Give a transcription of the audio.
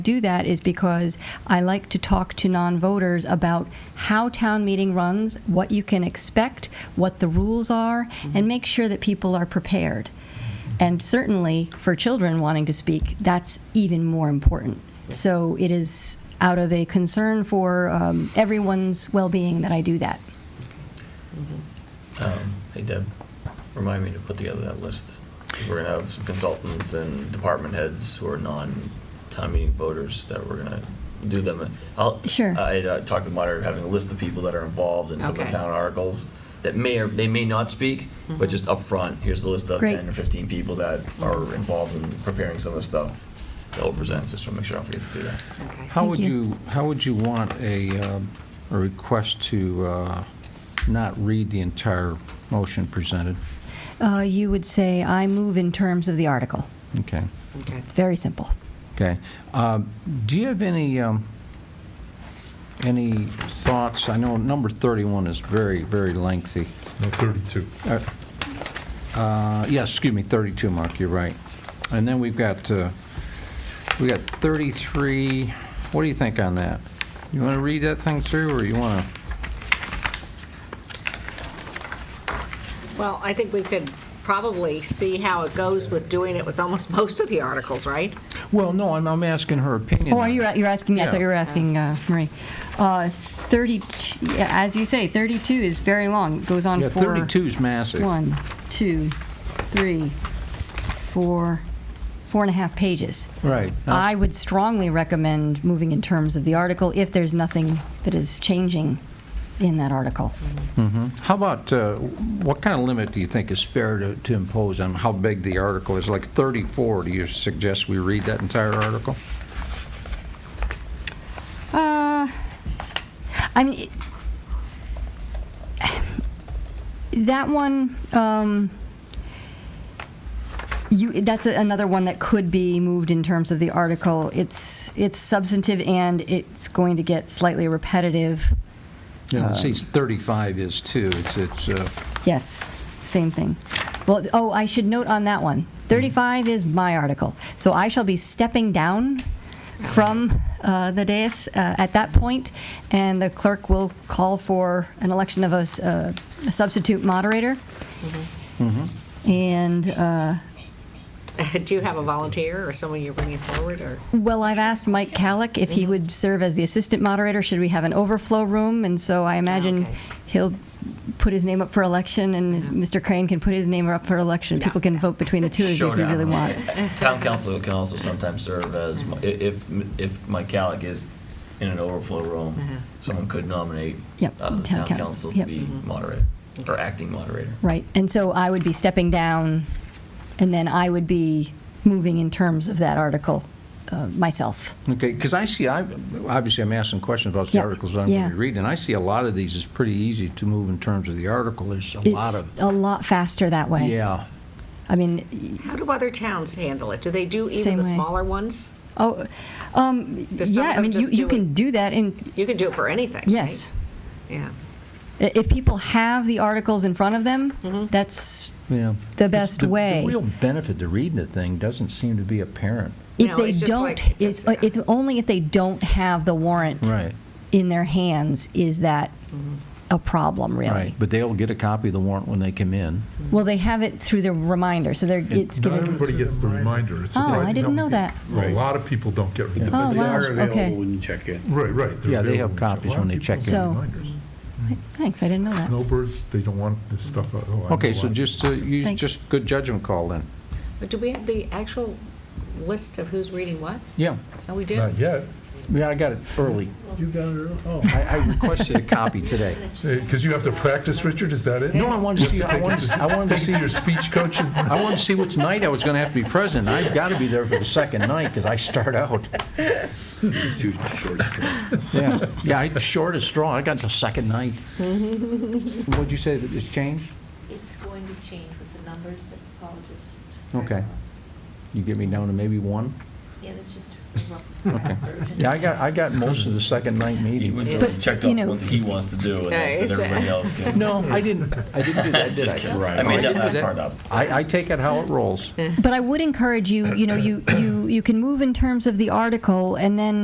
do that is because I like to talk to non-voters about how town meeting runs, what you can expect, what the rules are, and make sure that people are prepared. And certainly for children wanting to speak, that's even more important. So it is out of a concern for um, everyone's well-being that I do that. Um, Hey Deb, remind me to put together that list. 'cause We're gonna have some consultants and department heads who are non-town meeting voters that we're gonna do them. I'll- Sure. I uh, talked to the moderator, having a list of people that are involved in some of the Okay. town articles that may or, they may not speak, but just up front, here's the list of Mm-hmm. Great. 10 or 15 people that are involved in preparing some of the stuff that will present, just to make sure I don't forget to do that. Okay. How Thank would you. you, how would you want a, um, a request to uh, not read the entire motion presented? Uh, You would say, "I move in terms of the article." Okay, Okay. Very simple. okay. Um, Do you have any, um, any thoughts? I know number 31 is very, very lengthy. No, 32. Uh, Yes, excuse me, 32, Mark, you're right. And then we've got, uh, we got 33, what do you think on that? You want to read that thing through, or you want to? Well, I think we could probably see how it goes with doing it with almost most of the articles, right? Well, no, I'm, I'm asking her opinion. Oh, are you, you're asking me, I Yeah. thought you were asking uh, Marie. Uh, 32, yeah, as you say, 32 is very long, It goes on Yeah, for... 32 is massive. One, two, three, four, four and a half pages. Right. Uh, I would strongly recommend moving in terms of the article if there's nothing that is changing in that article. How about, uh, what kind of limit do you think is fair to, to impose on how big the article is? Like 34, do you suggest we read that entire article? Uh, I mean, that one, um, you, that's a- another one that could be moved in terms of the article. It's, it's substantive and it's going to get slightly repetitive. Uh, Yeah, see, 35 is too. It's, it's, uh, Yes, same thing. Well, oh, I should note on that one, 35 is my article. So I shall be stepping down from uh, the dais uh, at that point, and the clerk will call for an election of a s- uh, a substitute moderator. And, uh, Do you have a volunteer or someone you're bringing forward, or? well, I've asked Mike Calick if Mm-hmm. he would serve as the assistant moderator, should we have an overflow room? And so I imagine Okay. he'll put his name up for election, and Mr. Crane can put his name up for election. Yeah. People can vote between the two of you if we Showdown. really want. Town council can also sometimes serve as, i- if, if Mike Calick is in an overflow room, Uh-huh. someone could nominate Yep, uh, the town council to yep. be moderator, or acting moderator. Right, and so I would be stepping down, and then I would be moving in terms of that article uh, myself. okay, because I see, I, obviously, I'm asking questions about the Yeah, articles I'm going yeah. to read, and I see a lot of these is pretty easy to move in terms of the article. There's a lot It's of, a lot faster that way. yeah. I mean, How do other towns handle it? Do they do even Same the way. smaller ones? oh, um, Does some yeah, of I them mean, you just you do can it- do that in, You can do it for anything, right? yes. Yeah. I- If people have the articles in front of them, Mm-hmm. that's, Yeah. The best way. The real benefit to reading the thing doesn't seem to be apparent. if No, they it's just like- don't, it's it's- it's only if they don't have the warrant Right. in their hands, is that Mm-hmm. a problem, really? Right, but they'll get a copy of the warrant when they come in. Mm-hmm. Well, they have it through the reminder, so they're, it's Not given. everybody gets the reminder. It's Oh, I surprising didn't how know many people- that. A lot of people don't get reminders. Oh, But they wow, are okay. available when you check in. Right, right. they're Yeah, they have available. copies A lot when of they people check don't in. get So- reminders. Thanks, I didn't know that. Snowbirds, they don't want this stuff. out. Oh, I Okay, know so why. just, uh, use Thanks. just good judgment call then. But do we have the actual list of who's reading what? Yeah, Oh, we do? Not yet, yeah, I got it early. You got it, early? oh. I, I requested a copy today. because you have to practice, Richard, is that it? No, I wanted to see, I wanted, to- I wanted to see your, Your speech coach, and- I wanted to see which night I was gonna have to be present. I've gotta be there for the second night, because I start out. Too short straw. Yeah, yeah, I short as straw, I got the second night. What'd you say, that it's changed? It's going to change with the numbers that Paul just. Okay. You get me down to maybe one? Yeah, that's just a rough Okay. version. Yeah, I got, I got most of the second night He meeting. went But, through and checked you off know- what he wants to do, and Yeah, then said it's a- everybody else can. No, I didn't, I didn't do that, did Just Oh, I? kidding. Right. I made No, that didn't do last part up. I, I take it how it rolls. But I would encourage you, you know, you, you, you can move in terms of the article, and then